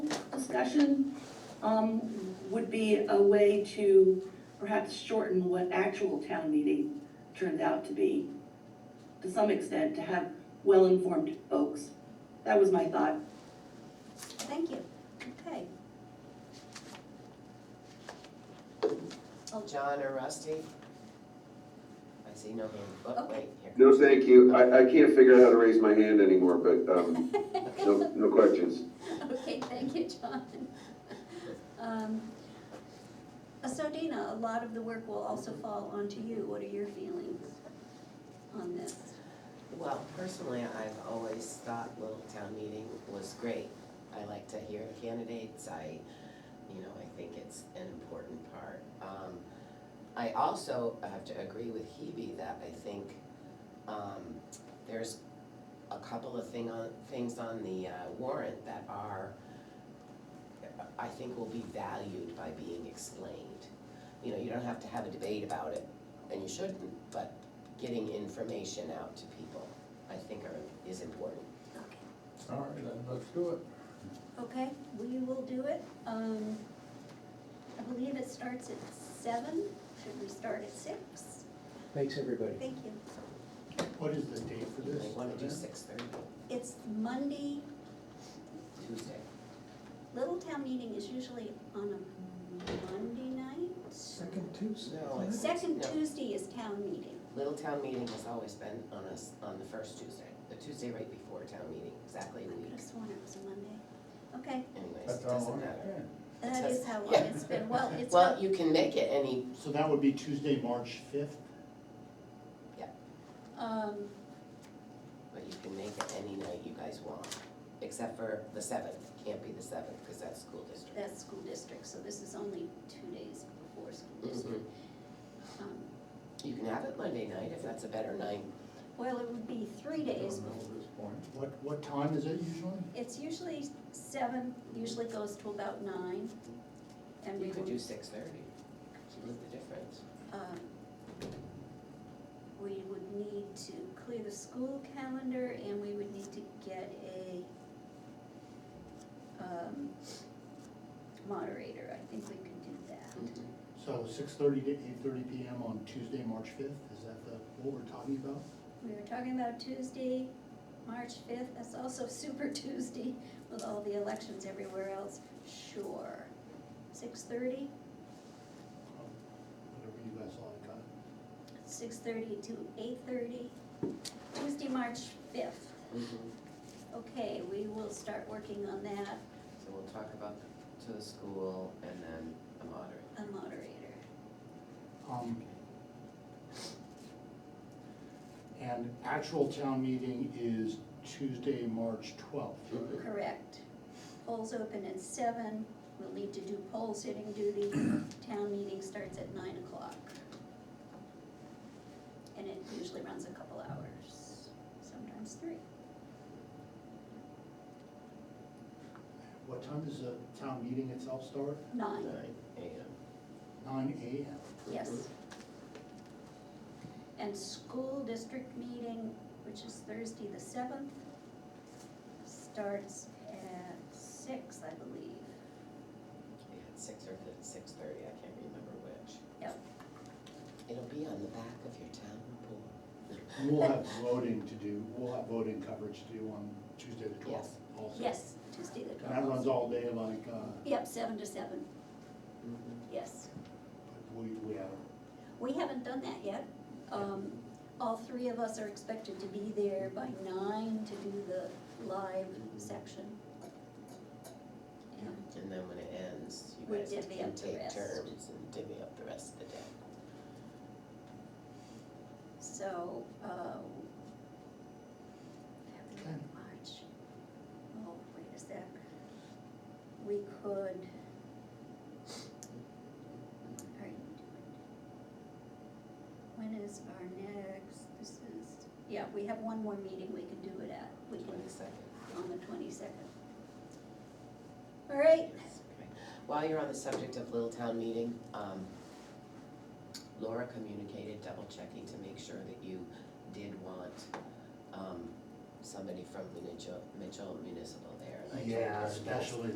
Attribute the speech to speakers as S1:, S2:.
S1: discussion um, would be a way to perhaps shorten what actual town meeting turned out to be, to some extent, to have well-informed folks. That was my thought.
S2: Thank you, okay.
S3: John or Rusty? I see no hand, oh,
S2: Okay.
S3: wait, here.
S4: No, thank you. I, I can't figure out how to raise my hand anymore, but, um, no, no questions.
S2: Okay, thank you, John. Um, uh, So Dina, a lot of the work will also fall onto you, what are your feelings on this?
S3: Well, personally, I've always thought little town meeting was great. I like to hear the candidates, I, you know, I think it's an important part. Um, I also have to agree with Hebe that I think, um, there's a couple of thing on, things on the uh, warrant that are, I think will be valued by being explained. You know, you don't have to have a debate about it, and you shouldn't, but getting information out to people, I think are, is important.
S2: Okay.
S5: All right, then, let's do it.
S2: Okay, we will do it. Um, I believe it starts at seven, should we start at six?
S6: Thanks, everybody.
S2: Thank you.
S5: What is the date for
S3: You
S5: this?
S3: may wanna do
S5: event?
S3: six thirty,
S2: It's Monday,
S3: Tuesday.
S2: Little Town Meeting is usually on a Monday night.
S6: Second Tuesday.
S3: No, it's-
S2: Second
S3: No.
S2: Tuesday is town meeting.
S3: Little town meeting has always been on us, on the first Tuesday, the Tuesday right before town meeting, exactly
S2: I
S3: a
S2: could
S3: week,
S2: have sworn it was a Monday. Okay,
S3: anyways,
S5: That's
S3: it
S5: how long
S3: doesn't
S5: it
S3: matter.
S2: that is how long
S3: Yeah.
S2: it's been. Well, it's
S3: Well,
S2: not,
S3: you can make it any,
S5: So that would be Tuesday, March fifth?
S2: um,
S3: but you can make it any night you guys want, except for the seventh, can't be the seventh, because that's school district.
S2: that's school district, so this is only two days before school district.
S3: Mhm.
S2: Um,
S3: You can have it Monday night if that's a better night.
S2: Well, it would be three
S5: I don't know
S2: days before.
S3: Mm-hmm.
S5: at this point. What, what time is it usually?
S2: It's usually seven, usually goes to about nine. And we
S3: You could
S2: will,
S3: do six thirty, split the difference.
S2: um, we would need to clear the school calendar and we would need to get a, um, moderator. I think we could do
S3: Hmm.
S2: that.
S3: Mm-hmm.
S5: So six thirty to eight thirty P M on Tuesday, March fifth, is that the, what we're talking about?
S2: We were talking about Tuesday, March fifth. That's also Super Tuesday with all the elections everywhere else. Sure. Six thirty?
S5: Whatever you guys like, I-
S2: six thirty to eight thirty, Tuesday, March fifth.
S3: Mhm.
S2: Okay, we will start working on that,
S3: So we'll talk about the- to the school and then the moderator.
S2: a moderator.
S5: um, and actual town meeting is Tuesday, March twelfth.
S3: Mhm.
S2: Correct. Polls open at seven, we'll need to do poll sitting duty, town meeting starts at nine o'clock. And it usually runs a couple hours, sometimes three.
S5: What time does the town meeting itself start?
S2: Nine.
S3: Nine AM.
S5: Nine A M.
S2: Yes. And school district meeting, which is Thursday the seventh, starts at six, I believe.
S3: We had six or six thirty, I can't remember which.
S2: Yep.
S3: It'll be on the back of your town report.
S5: We'll have voting to do, we'll have voting coverage to do on Tuesday the twelfth also.
S2: Yes, Tuesday the
S5: And that runs
S2: twelfth.
S5: all day like, uh,
S2: Yep, seven to seven,
S3: Mhm.
S2: yes.
S5: we, we have,
S2: We haven't done that yet. Um, all three of us are expected to be there by nine to do the live section. And
S3: And then when it ends, you
S2: We
S3: guys
S2: divvy
S3: can
S2: up the
S3: take
S2: rest.
S3: turns and divvy up the rest of the day.
S2: So, uh,
S5: Okay.
S2: February, March, oh, wait a sec. We could. Are you doing- When is our next, this is, yeah, we have one more meeting we can do it at, we can,
S3: Twenty-second.
S2: on the twenty-second. All right,
S3: Yes, okay. While you're on the subject of Little Town Meeting, um, Laura communicated double checking to make sure that you did want, um, somebody from the Mitchell, Mitchell Municipal there. and I told
S5: yeah,
S3: her that-
S5: especially